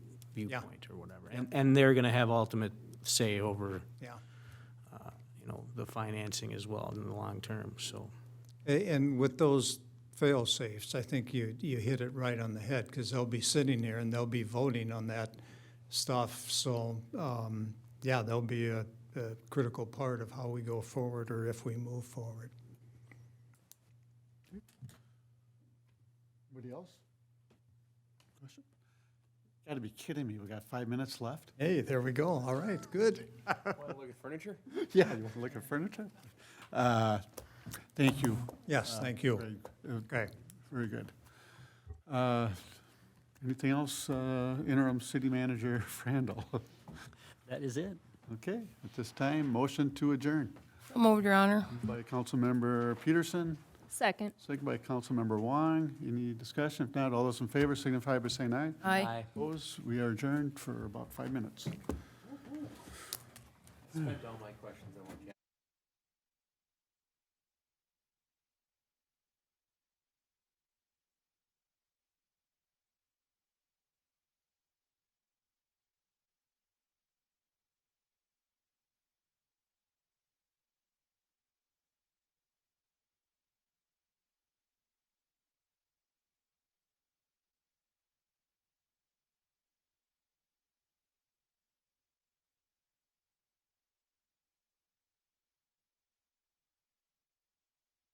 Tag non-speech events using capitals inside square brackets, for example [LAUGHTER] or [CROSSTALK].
viewpoint or whatever. And, and they're gonna have ultimate say over, uh, yeah. you know, the financing as well in the long term, so. A- And with those fail-safes, I think you, you hit it right on the head, because they'll be sitting there and they'll be voting on that stuff. So, um, yeah, they'll be a, a critical part of how we go forward or if we move forward. Anybody else? Question? Gotta be kidding me, we got five minutes left? Hey, there we go. All right, good. Want to look at furniture? [LAUGHS] Yeah, you wanna look at furniture? Uh, Thank you. Yes, thank you. Very, uh, Okay. Very good. Uh, Anything else, uh, interim city manager [LAUGHS] Frandl? That is it. Okay, at this time, motion to adjourn So moved, Your Honor. by Councilmember Peterson, Second. second by Councilmember Wong. Any discussion? If not, all those in favor signify by saying aye. Aye. Opposed, we are adjourned for about five minutes. Spent all my questions on one.